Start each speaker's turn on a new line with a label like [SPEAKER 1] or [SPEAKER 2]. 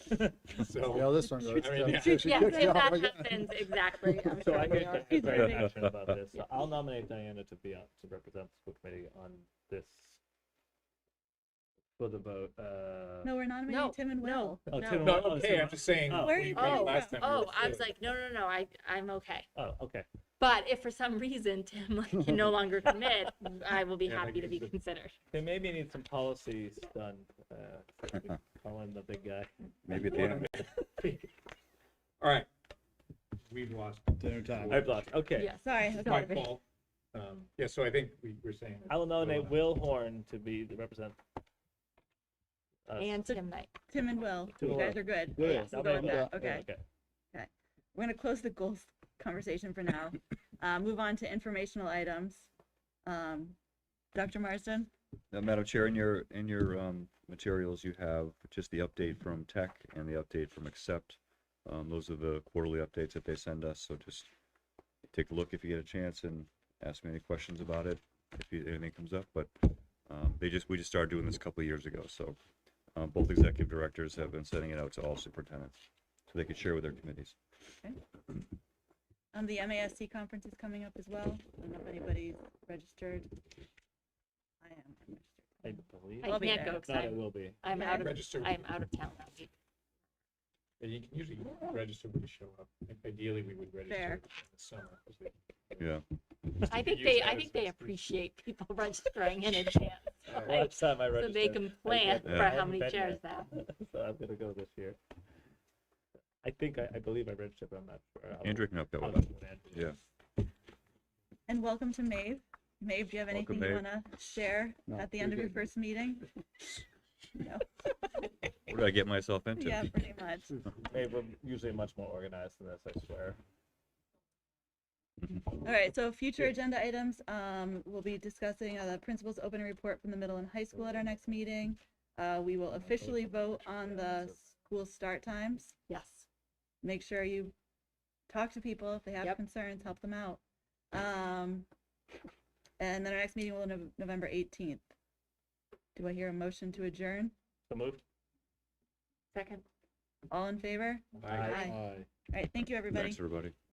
[SPEAKER 1] So,
[SPEAKER 2] Yeah, this one goes.
[SPEAKER 1] I mean, yeah.
[SPEAKER 2] So she
[SPEAKER 3] Yes,
[SPEAKER 2] kicks
[SPEAKER 3] if
[SPEAKER 2] off
[SPEAKER 3] that
[SPEAKER 2] again.
[SPEAKER 3] happens, exactly. I'm
[SPEAKER 4] So
[SPEAKER 3] sure
[SPEAKER 4] I
[SPEAKER 3] we
[SPEAKER 4] get
[SPEAKER 3] are.
[SPEAKER 4] I'm very
[SPEAKER 5] Yeah.
[SPEAKER 4] passionate about this. So
[SPEAKER 3] Yeah.
[SPEAKER 4] I'll nominate Diana to be on, to represent the school committee on this for the vote. Uh,
[SPEAKER 6] No, we're not nominating
[SPEAKER 3] No,
[SPEAKER 6] Tim and Will.
[SPEAKER 3] no.
[SPEAKER 4] oh,
[SPEAKER 3] no.
[SPEAKER 4] Tim-
[SPEAKER 1] no,
[SPEAKER 4] oh,
[SPEAKER 1] okay,
[SPEAKER 4] Tim-
[SPEAKER 1] I'm just saying.
[SPEAKER 4] Oh.
[SPEAKER 1] we-
[SPEAKER 6] Where you-
[SPEAKER 1] when
[SPEAKER 6] oh,
[SPEAKER 1] last time we
[SPEAKER 3] Oh,
[SPEAKER 1] were
[SPEAKER 3] I was
[SPEAKER 1] clear.
[SPEAKER 3] like, no, no, no, I, I'm okay.
[SPEAKER 4] Oh, okay.
[SPEAKER 3] But if for some reason Tim like, can no longer commit, I will be
[SPEAKER 1] Yeah,
[SPEAKER 3] happy to
[SPEAKER 1] like,
[SPEAKER 3] be
[SPEAKER 1] it's-
[SPEAKER 3] considered.
[SPEAKER 4] They maybe need some policies done. Uh, calling the big guy.
[SPEAKER 5] Maybe Dan.
[SPEAKER 1] All right. We've lost.
[SPEAKER 7] Dinner time.
[SPEAKER 4] I've lost. Okay.
[SPEAKER 3] Yes.
[SPEAKER 6] Sorry.
[SPEAKER 3] Sorry.
[SPEAKER 1] My fault. Um, yeah, so I think we were saying.
[SPEAKER 4] I will nominate
[SPEAKER 1] Will.
[SPEAKER 4] Will Horn to be the represent. us.
[SPEAKER 3] And Tim Knight.
[SPEAKER 6] Tim and Will.
[SPEAKER 4] Tim and
[SPEAKER 6] you guys
[SPEAKER 4] Will.
[SPEAKER 6] are good.
[SPEAKER 4] Good.
[SPEAKER 6] Yes, we'll go
[SPEAKER 4] Nominate
[SPEAKER 6] with that.
[SPEAKER 4] Will.
[SPEAKER 6] Okay.
[SPEAKER 4] okay.
[SPEAKER 6] We're gonna close the goals conversation for now. uh, move on to informational items. Um, Dr. Marsden.
[SPEAKER 5] Now, Madam Chair, in your, in your um, materials, you have just the update from Tech and the update from Accept. Um, Those are the quarterly updates that they send us, so just take a look if you get a chance and ask me any questions about it, if you- anything comes up, but um, they just, we just started doing this a couple of years ago, so um, both executive directors have been sending it out to all superintendents, so they can share with their committees.
[SPEAKER 6] Um, the MASC conference is coming up as well. I don't know if anybody's registered. I am registered.
[SPEAKER 4] I believe.
[SPEAKER 3] I
[SPEAKER 6] I'll be
[SPEAKER 3] can't
[SPEAKER 6] there.
[SPEAKER 3] go
[SPEAKER 4] If
[SPEAKER 3] because
[SPEAKER 4] not, it
[SPEAKER 3] I'm,
[SPEAKER 4] will be.
[SPEAKER 3] I'm
[SPEAKER 6] Yeah.
[SPEAKER 3] out of,
[SPEAKER 1] Register.
[SPEAKER 3] I'm out of town that week.
[SPEAKER 1] Yeah, You can usually register when you show up. Ideally, we would register
[SPEAKER 6] Fair.
[SPEAKER 1] in the summer. 'cause we-
[SPEAKER 5] Yeah,
[SPEAKER 3] I
[SPEAKER 1] could
[SPEAKER 3] think
[SPEAKER 1] use
[SPEAKER 3] they,
[SPEAKER 1] that
[SPEAKER 3] I
[SPEAKER 1] as
[SPEAKER 3] think
[SPEAKER 1] an
[SPEAKER 3] they
[SPEAKER 1] excuse.
[SPEAKER 3] appreciate people registering in advance. Right.
[SPEAKER 4] Last time I
[SPEAKER 3] So
[SPEAKER 4] registered.
[SPEAKER 3] they can plan
[SPEAKER 5] Yeah.
[SPEAKER 3] for how
[SPEAKER 4] haven't
[SPEAKER 3] many
[SPEAKER 4] been
[SPEAKER 3] chairs
[SPEAKER 4] yet.
[SPEAKER 3] they have.
[SPEAKER 4] so I'm gonna go this year. I think I, I believe I registered, but I'm not sure. I'll-
[SPEAKER 5] Andrew can help that
[SPEAKER 4] I'll
[SPEAKER 5] with
[SPEAKER 4] check
[SPEAKER 5] that.
[SPEAKER 4] with Andrew.
[SPEAKER 5] Yeah.
[SPEAKER 6] And welcome to Maeve. Maeve, do you have
[SPEAKER 5] Welcome,
[SPEAKER 6] anything you
[SPEAKER 5] Maeve.
[SPEAKER 6] wanna share
[SPEAKER 2] No,
[SPEAKER 6] at the
[SPEAKER 2] you're
[SPEAKER 6] end of your
[SPEAKER 2] good.
[SPEAKER 6] first meeting?
[SPEAKER 5] What did I get myself into?
[SPEAKER 6] Yeah, pretty much.
[SPEAKER 4] Hey, we're usually much more organized than this, I swear.
[SPEAKER 6] All right, so future agenda items, um, we'll be discussing, uh, the principal's opening report from the middle and high school at our next meeting. Uh, we will officially vote on the school start times.
[SPEAKER 3] Yes.
[SPEAKER 6] Make sure you talk to people if they have
[SPEAKER 3] Yep.
[SPEAKER 6] concerns, help them out. Um, and then our next meeting will be Nov- November eighteenth. Do I hear a motion to adjourn?
[SPEAKER 4] So moved.
[SPEAKER 3] Second.
[SPEAKER 6] All in favor?
[SPEAKER 1] I-
[SPEAKER 6] All right, thank you, everybody.
[SPEAKER 5] Thanks, everybody.